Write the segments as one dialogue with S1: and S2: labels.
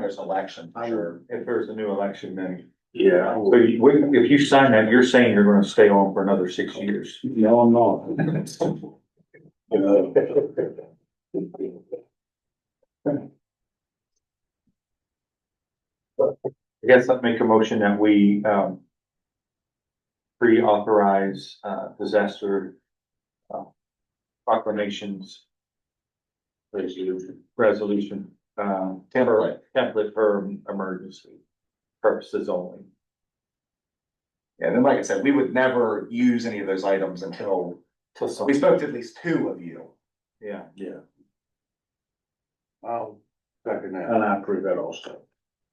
S1: there's an election, for sure.
S2: If there's a new election, then,
S3: Yeah.
S2: so you, when- if you sign that, you're saying you're gonna stay on for another six years.
S3: No, I'm not.
S2: I guess I'd make a motion that we, um, pre-authorize, uh, disaster uh, proclamations
S3: Resolution.
S2: resolution, um, template, template for emergency purposes only.
S1: And then, like I said, we would never use any of those items until,
S2: Till some-
S1: we spoke to at least two of you.
S2: Yeah,
S3: Yeah. I'll second that.
S4: And I approve that also.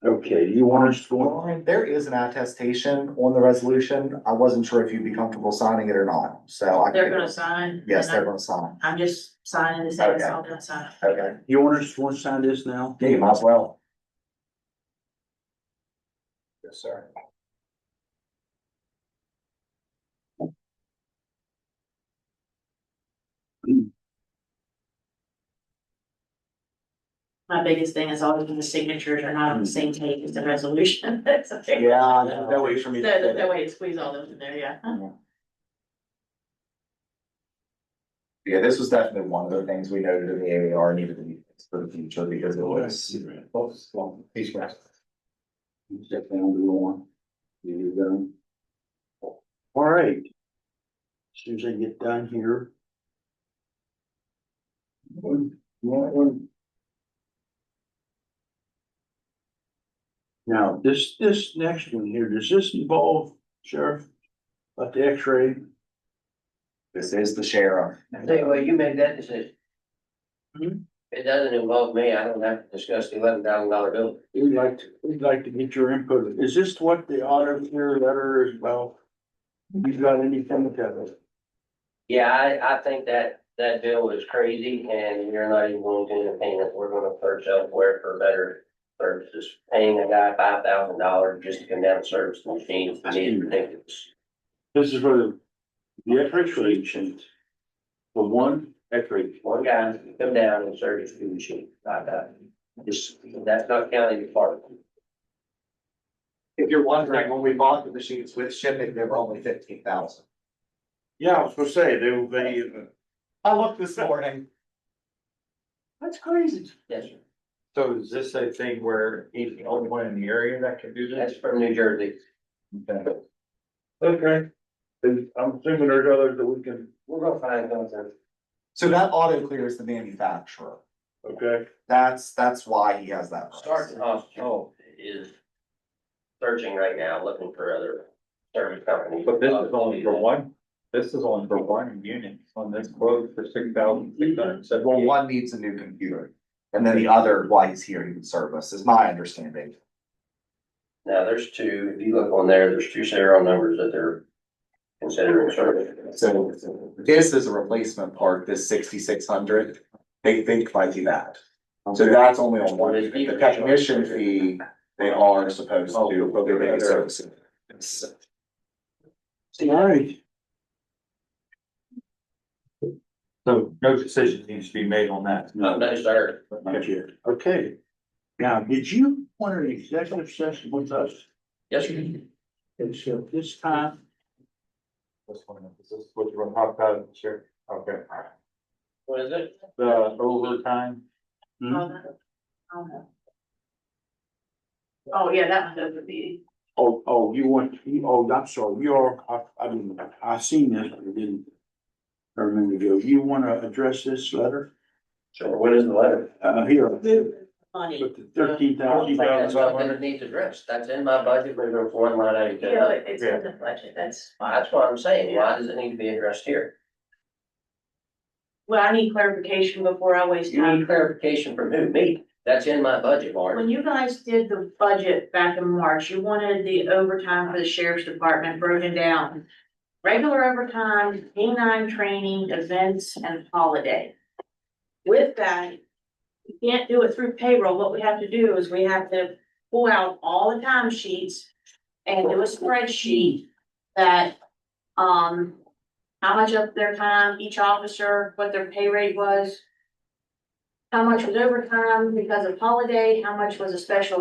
S3: Okay, you want us to go on?
S1: Lauren, there is an attestation on the resolution. I wasn't sure if you'd be comfortable signing it or not, so. I
S5: They're gonna sign.
S1: Yes,
S5: and
S1: they're gonna sign.
S5: I'm I'm just signing this,
S1: Okay.
S5: that's all gonna sign.
S1: Okay.
S3: You want us to go and sign this now?
S1: Yeah, you might as well.
S2: yes, sir.
S5: My biggest thing is all of the signatures are not on the same page as the resolution. That's okay.
S1: Yeah, there's no way for
S5: So
S1: me to.
S5: that
S1: fit
S5: that
S1: it.
S5: way to squeeze all those in there, yeah.
S1: Mm-hmm. Yeah, this was definitely one of the things we noted in the AAR needed to be fixed for the future because it was. These guys.
S3: Step down to the one. You done? All right. As Soon as I get done here. One, one, one. Now, this, this next one here, does this involve sheriff? About the x-ray?
S1: This is the sheriff.
S4: Say, well, you make that decision.
S3: Mhm.
S4: It doesn't involve me, I don't have to discuss the eleven thousand dollar bill.
S3: We'd like to, we'd like to get your input. Is this what the auditor letter is about? You've got anything with that?
S4: Yeah, I, I think that, that bill is crazy and you're not even going to entertain it, we're gonna search elsewhere for better services. Paying a guy five thousand dollars just to come down and service the machine, I mean, it's ridiculous.
S3: This is for the, the x-ray machine. The one x-ray.
S4: One guy to come down and service the machine, like that. Just, that's not counting the part.
S1: If you're wondering, when we bought the machines with shipping, they were only fifteen thousand.
S3: Yeah, I was gonna say, they, they,
S1: I looked this morning.
S3: that's crazy.
S4: Yes, sir.
S2: So is this a thing where he's the only one in the area that can do
S4: That's
S2: this?
S4: from New Jersey.
S3: Okay. And I'm assuming there's others that we can,
S4: We're gonna find something.
S1: So that auto clears the manufacturer.
S3: okay,
S1: That's, that's why he has that. price.
S4: Sergeant Hospital is searching right now, looking for other service companies.
S2: But this is only for one, this is only for one unit on this quote for six thousand six hundred
S1: Well,
S2: seventy.
S1: one needs a new computer and then the other, why he's here, he would service, is my understanding.
S4: Now, there's two, if you look on there, there's two serial numbers that they're considering service.
S1: So this is a replacement part, this sixty-six hundred, they think might be that. So that's only on one, the technician fee, they are supposed to, but they're making services.
S3: all right.
S2: So no decision needs to be made on that.
S4: No, sir.
S3: Not yet, okay. Now, did you want an executive session with us?
S4: Yes, sir.
S3: And so this time,
S2: This one, is this what you want to talk about, sure, okay.
S4: What is it?
S2: The overtime,
S3: Hmm?
S5: All that. All that. Oh, yeah, that one's over the,
S3: oh, oh, you want, you- oh, I'm sorry, you're, I, I didn't, I seen this, but I didn't. I remember you, you wanna address this letter,
S4: Sure, what is the letter?
S3: uh, here,
S5: money.
S3: with the thirteen thousand.
S4: That's something that needs addressed. That's in my budget, but there's one line item.
S5: You know, it- it's in the budget, that's why.
S4: That's what I'm saying. Why does it need to be addressed here?
S5: Well, I need clarification before I waste
S4: You need
S5: time.
S4: clarification from who? Me? That's in my budget, Mark.
S5: When you guys did the budget back in March, you wanted the overtime for the sheriff's department broken down. Regular overtime, K nine training, events and holiday. With that, you can't do it through payroll. What we have to do is we have to pull out all the time sheets and do a spreadsheet that, um, how much of their time, each officer, what their pay rate was, how much was overtime because of holiday, how much was a special